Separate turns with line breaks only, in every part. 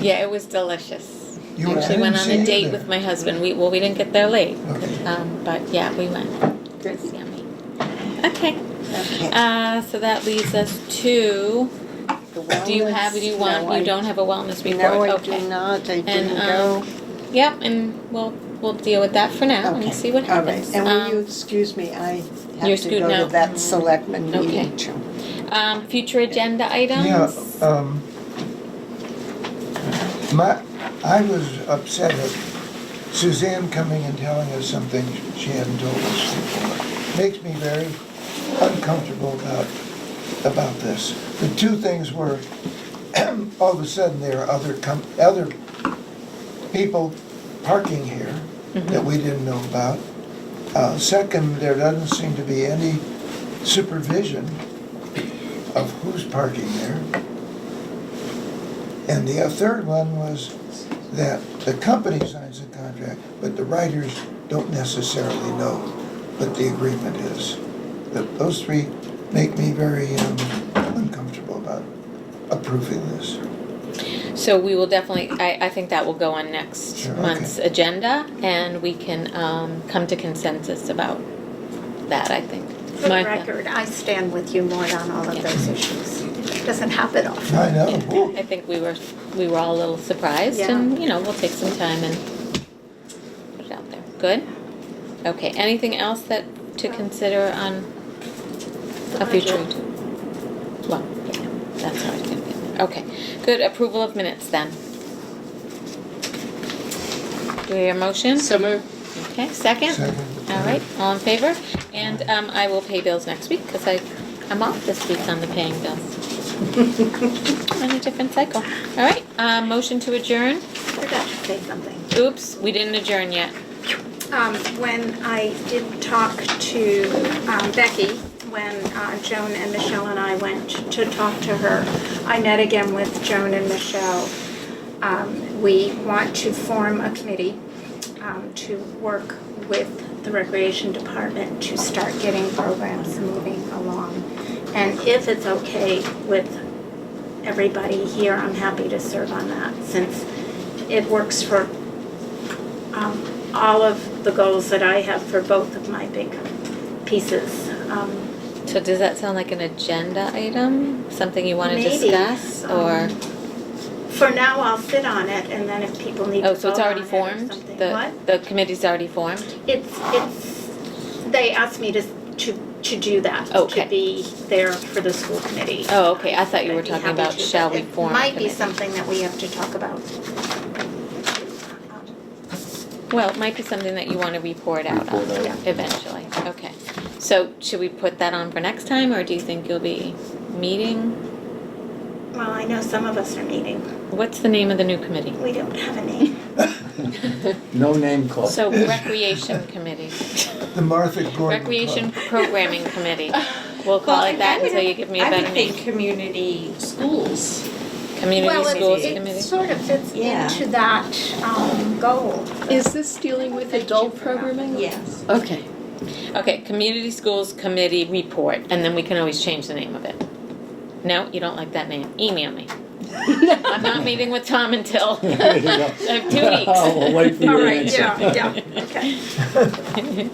Yeah, it was delicious.
You
I
were- I
actually went
didn't
on
see
a
you
date
there.
with my husband. We well, we didn't get there late,
Okay.
um, but yeah, we went. It was yummy. Okay. Uh, so that leads us to. Do you have? Do you want? you don't have a wellness report.
No, I
okay.
do not. I
And, um,
didn't go.
Yep, and we'll we'll deal with that for now
Okay.
and see what
All right.
happens.
And will
Um,
you excuse me? I
You're
have to
screwed
go
now.
to that selectman
Okay.
meeting too.
um, future agenda items.
Yeah,
uh,
um, my, I was upset at Suzanne coming and telling us something she hadn't told us before. Makes me very uncomfortable about, about this. The two things were, all of a sudden, there are other com, other people parking here that we didn't know about. Uh, second, there doesn't seem to be any supervision of who's parking there. And the uh, third one was that the company signs the contract, but the writers don't necessarily know what the agreement is. That Those three make me very um, uncomfortable about approving this.
So we will definitely, I, I think that will go on next
Sure, okay.
month's agenda, and we can um, come to consensus about that, I think.
For the
Martha?
record, I stand with you, Maud, on all of
Yeah.
those issues. Doesn't happen often.
I
Yeah,
know.
I think we were, we were all a little surprised, and, you know, we'll take some time and put it out there. Good? Okay, anything else that, to consider on a future? Well, yeah, that's how it's gonna be. Okay, good, approval of minutes then. Do we hear a motion?
So moved.
Okay, second?
Second.
All right, all in favor? And um, I will pay bills next week because I, I'm off this week on the paying bills. On a different cycle. All right, uh, motion to adjourn.
I forgot to say something.
Oops, we didn't adjourn yet.
Um, When I did talk to um, Becky, when uh, Joan and Michelle and I went to talk to her, I met again with Joan and Michelle. Um, We want to form a committee um, to work with the Recreation Department to start getting programs moving along. And if it's okay with everybody here, I'm happy to serve on that since it works for um, all of the goals that I have for both of my big pieces. Um,
So does that sound like an agenda item? Something you want to
Maybe,
discuss or?
um, For now, I'll sit on it, and then if people need to
Oh, so
vote
it's
on
already
it
formed?
or something.
The
What?
The committee's already formed?
It's, it's, they asked me to, to, to do that.
Okay.
To be there for the school committee.
Oh, okay, I thought you were
I'd be
talking
happy
about
to,
shall
but
we form a
It might be
committee.
something that we have to talk about.
Well, it might be something that you want to report out on
Report out.
eventually. Okay. So should we put that on for next time or do you think you'll be meeting?
Well, I know some of us are meeting.
What's the name of the new committee?
We don't have a name.
No name club.
So Recreation Committee,
The Martha Gordon Club.
Recreation Programming Committee. We'll call it that until you give me a
I
better
would
name.
think community schools.
Community Schools
Well, it- it
Committee.
sort of fits
Yeah.
into that um, goal.
Is this dealing with adult programming?
Yes.
Okay.
Okay, Community Schools Committee Report, and then we can always change the name of it. No, you don't like that name? Email me. I'm not meeting with Tom until
There you go.
have two weeks.
I'll wait
All
for your
right,
answer.
yeah, yeah, okay.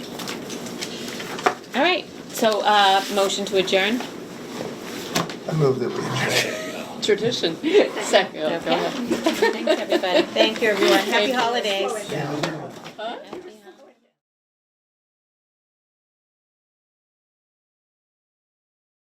All right, so, uh, motion to adjourn?
I move that we adjourn.
Tradition. Second.
Okay. Thanks, everybody. Thank you, everyone. Happy holidays.
Slow it down.